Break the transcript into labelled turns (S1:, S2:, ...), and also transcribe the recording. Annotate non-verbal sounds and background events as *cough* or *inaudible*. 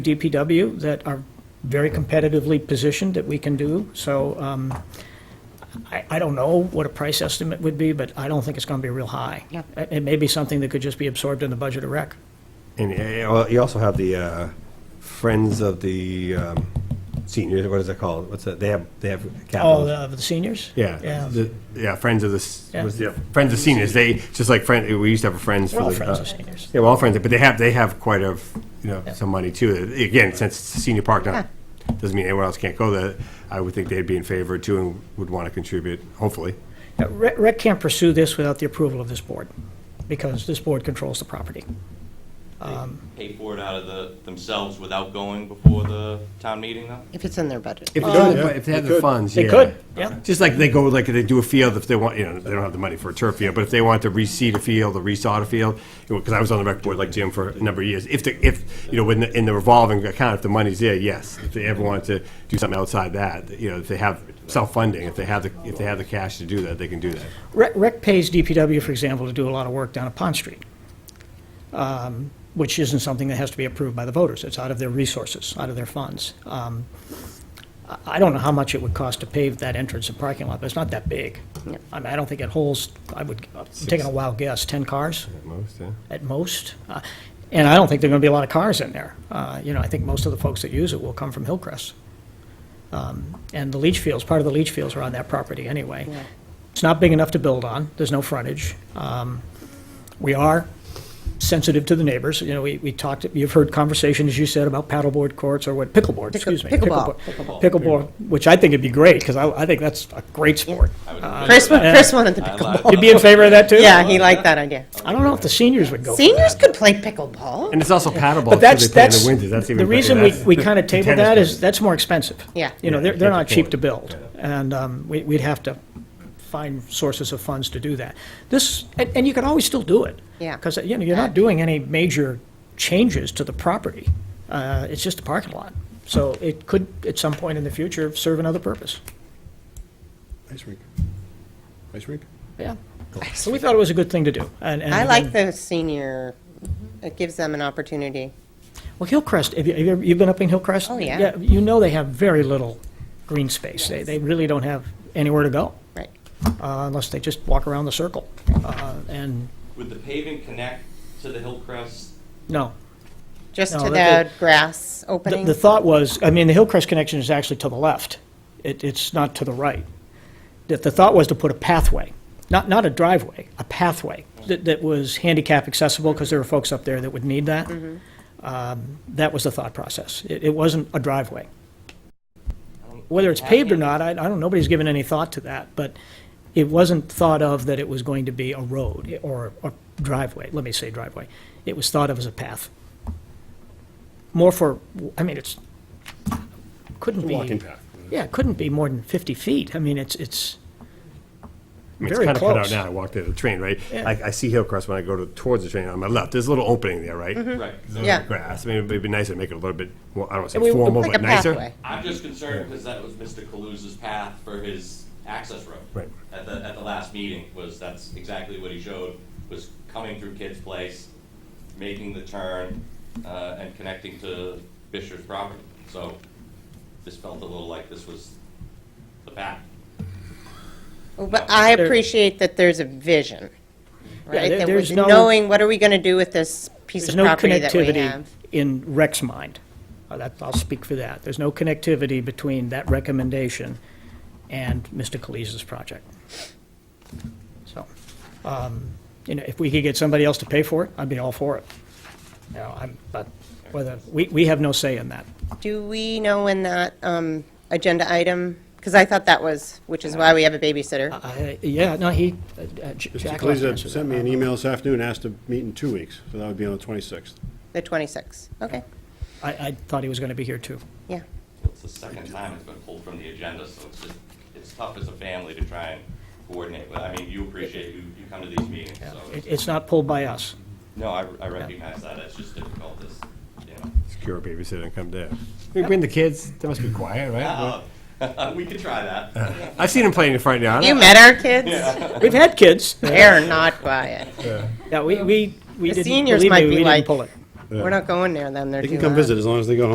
S1: DPW that are very competitively positioned that we can do. So um, I I don't know what a price estimate would be, but I don't think it's going to be real high.
S2: Yep.
S1: It it may be something that could just be absorbed in the budget of rec.
S3: And uh, well, you also have the uh, Friends of the um, Seniors, what is it called? What's that? They have, they have
S1: Oh,
S3: capital.
S1: the the seniors?
S3: Yeah, the- yeah, Friends of the, s-
S1: Yeah.
S3: was it- Friends of Seniors, they, just like Friends, we used to have a Friends.
S1: We're
S3: for
S1: all
S3: the,
S1: friends
S3: uh,
S1: of seniors.
S3: Yeah, we're all Friends, but they have, they have quite a, f- you know, some money too. Again, since it's a senior park, not, doesn't mean anyone else can't go there. I would think they'd be in favor too and would want to contribute, hopefully.
S1: Uh, Rec rec can't pursue this without the approval of this board, because this board controls the property.
S4: pay for it out of the, themselves without going before the town meeting though?
S2: If it's in their budget.
S3: If, it's in the bu- if they have the funds, yeah.
S1: They could, yeah.
S3: Just like they go, like they do a field if they want, you know, they don't have the money for a turf field, but if they want to reseed a field or resod a field, because I was on the rec board like Jim for a number of years, if the, if, you know, when the, in the revolving account, if the money's there, yes. If they ever want to do something outside that, you know, if they have self-funding, if they have the, if they have the cash to do that, they can do that.
S1: Rec, rec pays DPW, for example, to do a lot of work down at Pond Street, um, which isn't something that has to be approved by the voters. It's out of their resources, out of their funds. Um, I- I don't know how much it would cost to pave that entrance and parking lot, but it's not that big.
S2: No.
S1: I mean, I don't think it holds, I would, I'm taking a wild guess, 10 cars?
S3: At most, yeah.
S1: at most. Uh, And I don't think there are going to be a lot of cars in there. Uh, You know, I think most of the folks that use it will come from Hillcrest. Um, And the leach fields, part of the leach fields are on that property anyway. It's not big enough to build on, there's no frontage. Um, We are sensitive to the neighbors, you know, we we talked, you've heard conversation, as you said, about paddleboard courts or what, pickleboard,
S2: Pickle-
S1: excuse me.
S2: pickleball.
S1: Pickleboard, Pickleball, which I think would be great, because I I think that's a great sport.
S2: Chris, wa-
S1: Yeah.
S2: Chris wanted the
S4: I
S2: pickleball.
S4: lied.
S1: Uh, You'd be in favor of that, too?
S2: *laughs* Yeah, he liked that idea.
S1: I don't know if the seniors would go for that.
S2: Seniors could play pickleball.
S3: And it's also paddleable,
S1: But that's,
S3: too, they play in
S1: that's,
S3: the winter, that's even.
S1: the
S3: better.
S1: reason we,
S3: That's-
S1: we
S3: *laughs*
S1: kind of table
S3: tennis
S1: that is,
S3: court.
S1: that's more expensive.
S2: Yeah.
S1: You know,
S3: Yeah,
S1: they're,
S3: you
S1: they're
S3: can't
S1: not cheap
S3: afford
S1: to
S3: it.
S1: build, and um, we, we'd have to find sources of funds to do that. This, and, and you can always still do it.
S2: Yeah.
S1: Because, you know, you're not doing any major changes to the property. Uh, It's just a parking lot. So it could, at some point in the future, serve another purpose.
S5: Ice rink. Ice rink?
S1: Yeah. So we thought it was a good thing to do. and- and
S2: I like
S1: again-
S2: the senior, it gives them an opportunity.
S1: Well, Hillcrest, have you, have you ever- you've been up in Hillcrest?
S2: Oh, yeah.
S1: You know they have very little green space. They, they really don't have anywhere to go,
S2: Right.
S1: uh, unless they just walk around the circle. Uh, and,
S4: Would the paving connect to the Hillcrest?
S1: no.
S2: Just
S1: No,
S2: to
S1: that-
S2: the grass
S1: The,
S2: opening.
S1: the thought was, I mean, the Hillcrest connection is actually to the left. It, it's not to the right. That the thought was to put a pathway, not, not a driveway, a pathway that, that was handicap accessible, because there were folks up there that would need that. Um, That was the thought process. It, it wasn't a driveway. Whether it's paved or not, I, I don't, nobody's given any thought to that, but it wasn't thought of that it was going to be a road or a driveway, let me say driveway. It was thought of as a path. More for, I mean, it's, couldn't be.
S3: Walking path.
S1: Yeah, it couldn't be more than 50 feet. I mean, it's, it's
S3: I mean,
S1: Very
S3: it's kind of cut
S1: close.
S3: out now. I walked into the train, right?
S1: Yeah.
S3: Like I see Hillcrest when I go to, towards the train on my left. There's a little opening there, right?
S1: Mm-hmm.
S4: Right.
S2: Yeah.
S3: Grass. I mean, it'd be nice to make it a little bit. Well, I don't want to
S1: And we-
S3: say formal,
S2: Like a
S3: but nicer.
S2: pathway.
S4: I'm just concerned because that was Mr. Kaluza's path for his access road.
S3: Right.
S4: At the, at the last meeting was, that's exactly what he showed, was coming through Kid's Place, making the turn, uh, and connecting to Fisher's property. So this felt a little like this was the path.
S2: But I appreciate that there's a vision, right?
S1: there-
S2: That we're
S1: there's no-
S2: knowing what are we going to do with this piece
S1: there's
S2: of
S1: no
S2: property that we
S1: connectivity
S2: have.
S1: in Rec's mind. Uh, that- I'll speak for that. There's no connectivity between that recommendation and Mr. Kaliza's project. So, um, you know, if we could get somebody else to pay for it, I'd be all for it. You know, I'm, but whether, we, we have no say in that.
S2: Do we know when that um, agenda item, because I thought that was, which is why we have a babysitter.
S1: I, yeah, no, he, uh, uh, J-
S5: Mr.
S1: Jack. left
S5: Kaliza
S1: answered
S5: sent me
S1: that.
S5: an email this afternoon, asked to meet in two weeks, so that would be on the 26th.
S2: The 26th, okay,
S1: I, I thought he was gonna be here too.
S2: yeah.
S4: It's the second time it's been pulled from the agenda, so it's just, it's tough as a family to try and coordinate. But I mean, you appreciate, you, you come to these meetings, so.
S1: It, it's not pulled by us.
S4: No, I, I recognize that, it's just difficult, this, you know.
S3: Secure a babysitter and come down. We bring the kids. They must be quiet, right?
S4: Uh, *laughs* We could try that.
S3: I've seen them playing in front yard.
S2: You met our kids?
S1: We've had kids.
S2: They're not quiet.
S1: Yeah, we, we, we
S2: The
S1: didn't,
S2: seniors
S1: believe
S2: might
S1: me,
S2: be
S1: we
S2: like-
S1: didn't pull it.
S2: We're not going there then, they're
S5: They
S2: too
S5: can come
S2: loud.
S5: visit as long as they go home.